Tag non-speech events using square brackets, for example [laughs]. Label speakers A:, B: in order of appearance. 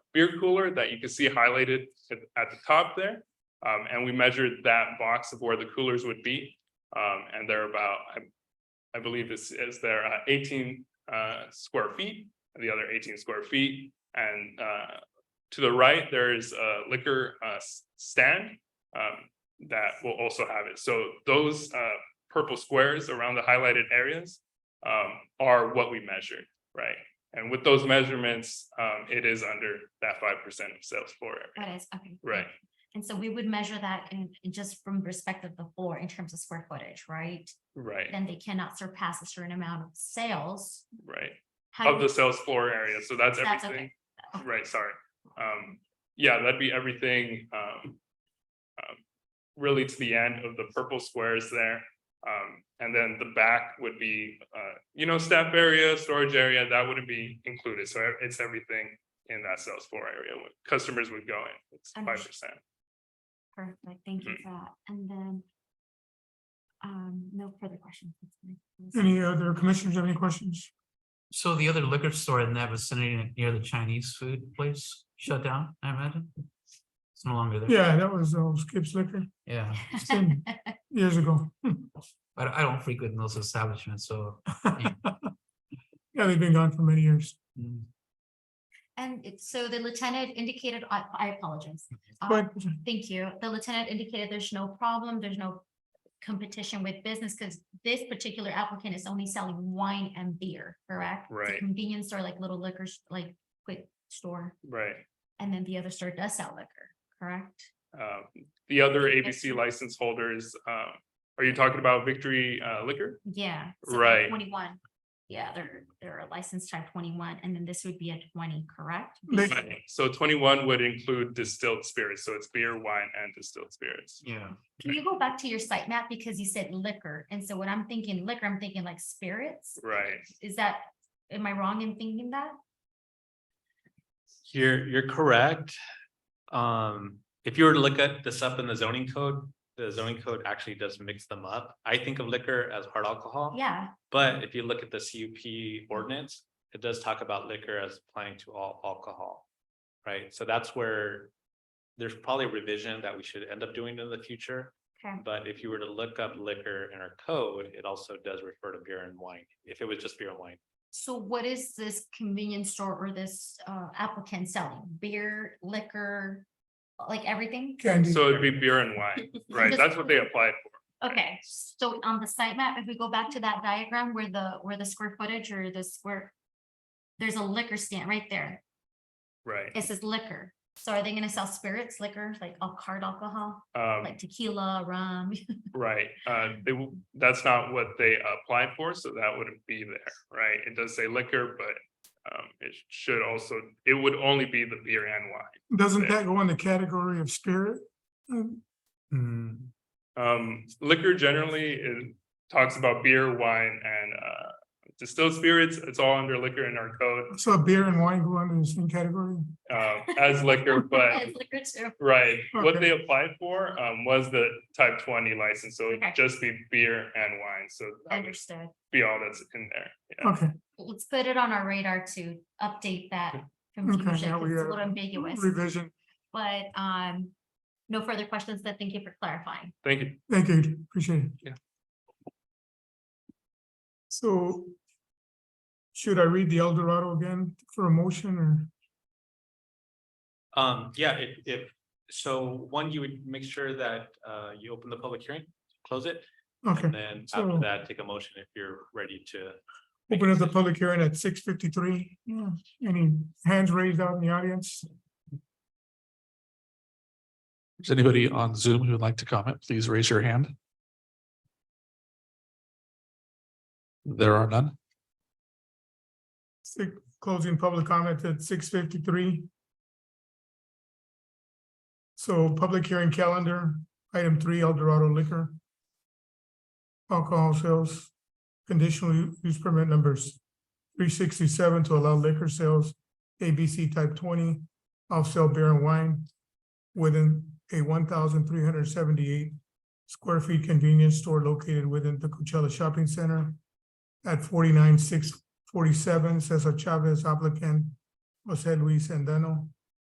A: beer cooler that you can see highlighted at at the top there. Um, and we measured that box of where the coolers would be. Um, and they're about, I, I believe this is their eighteen, uh, square feet, and the other eighteen square feet. And, uh, to the right, there is a liquor, uh, s- stand, um, that will also have it. So those, uh, purple squares around the highlighted areas, um, are what we measured, right? And with those measurements, um, it is under that five percent of sales floor area,
B: That is, okay.
A: right?
B: And so we would measure that in, in just from respect of the floor in terms of square footage, right?
A: Right,
B: Then they cannot surpass a certain amount of sales.
A: right.
B: How
A: Of
B: do-
A: the sales floor area, so that's
B: That's
A: everything.
B: okay.
A: Right, sorry. Um, yeah, that'd be everything, um. um, Really to the end of the purple squares there. Um, and then the back would be, uh, you know, staff area, storage area, that wouldn't be included, so e-, it's everything. In that sales floor area, when customers would go in, it's five percent,
B: Perfect, thank
A: Mm-hmm.
B: you for that. And then um, no further questions.
C: Any uh, other commissioners have any questions?
D: So the other liquor store in that vicinity near the Chinese food place shut down, I imagine? It's no longer there.
C: Yeah, that was uh, Skip's Liquor
D: Yeah,
C: ten years ago. Hmm.
D: but I don't frequent those establishments, so.
C: Yeah, they've been gone for many years.
D: mm,
B: [laughs] And it- so the lieutenant indicated, I, I apologize. Uh,
C: But
B: Thank you. The lieutenant indicated there's no problem, there's no competition with business, because this particular applicant is only selling wine and beer, correct? It's a
A: Right.
B: Convenience store, like little liquor, s- like quick store,
A: right?
B: and then the other store does sell liquor, correct?
A: Um, the other ABC license holders, um, are you talking about Victory uh, Liquor?
B: Yeah. so they're
A: Right.
B: Twenty-one. Yeah, they're, they're licensed type twenty-one, and then this would be a twenty, correct?
C: they,
A: Right. So twenty-one would include distilled spirits, so it's beer, wine, and distilled spirits.
D: Yeah,
B: Can you go back to your site map? Because you said liquor, and so when I'm thinking liquor, I'm thinking like spirits.
A: Right,
B: Is that, am I wrong in thinking that?
E: You're, you're correct. Um, if you were to look at this up in the zoning code, the zoning code actually does mix them up. I think of liquor as hard alcohol.
B: Yeah,
E: But if you look at the CUP ordinance, it does talk about liquor as applying to all alcohol. Right? So that's where there's probably a revision that we should end up doing in the future.
B: okay.
E: But if you were to look up liquor in our code, it also does refer to beer and wine. If it was just beer and wine,
B: So what is this convenience store or this uh, applicant selling? Beer, liquor, like everything?
C: candy,
A: so it'd be beer and wine, right? That's what they applied for.
B: Okay, so on the site map, if we go back to that diagram where the, where the square footage or the square, there's a liquor stand right there.
A: Right,
B: It says liquor. So are they gonna sell spirits, liquor, like all hard alcohol,
A: um,
B: like tequila, rum? [laughs]
A: right, uh, they, w- that's not what they applied for, so that wouldn't be there, right? It does say liquor, but, um, it should also, it would only be the beer and wine.
C: doesn't that go in the category of spirit? Um,
D: Mm,
A: Um, liquor generally, it talks about beer, wine, and, uh, distilled spirits, it's all under liquor in our code,
C: So beer and wine go under the same category?
A: uh, as liquor,
B: [laughs]
A: but
B: It's Liquor too.
A: Right, what
C: Okay.
A: they applied for um was the type twenty license, so it'd
B: Okay.
A: just be beer and wine, so that would
B: Understood.
A: be all that's in there. Yeah,
C: Okay,
B: Let's put it on our radar to update that confusion,
C: Okay,
B: 'cause
C: yeah,
B: it's a
C: we, uh,
B: little ambiguous.
C: revision.
B: But um, no further questions, then thank you for clarifying.
A: thank you.
C: Thank you, appreciate it.
A: Yeah.
C: So should I read the El Dorado again for a motion or?
E: Um, yeah, if, if, so one, you would make sure that, uh, you open the public hearing, close it,
C: Okay,
E: and then
C: so-
E: after that, take a motion if you're ready to.
C: open up the public hearing at six fifty-three. Yeah, any hands raised out in the audience?
F: Is anybody on Zoom who would like to comment? Please raise your hand. There are none.
C: Six, closing public comment at six fifty-three. So public hearing calendar, item three, El Dorado liquor. Alcohol sales, conditional u- use permit numbers three sixty-seven to allow liquor sales, ABC type twenty, off-sale beer and wine within a one thousand three hundred seventy-eight square feet convenience store located within the Coachella Shopping Center at forty-nine six forty-seven, Cesar Chavez applicant, Jose Luis Sandano,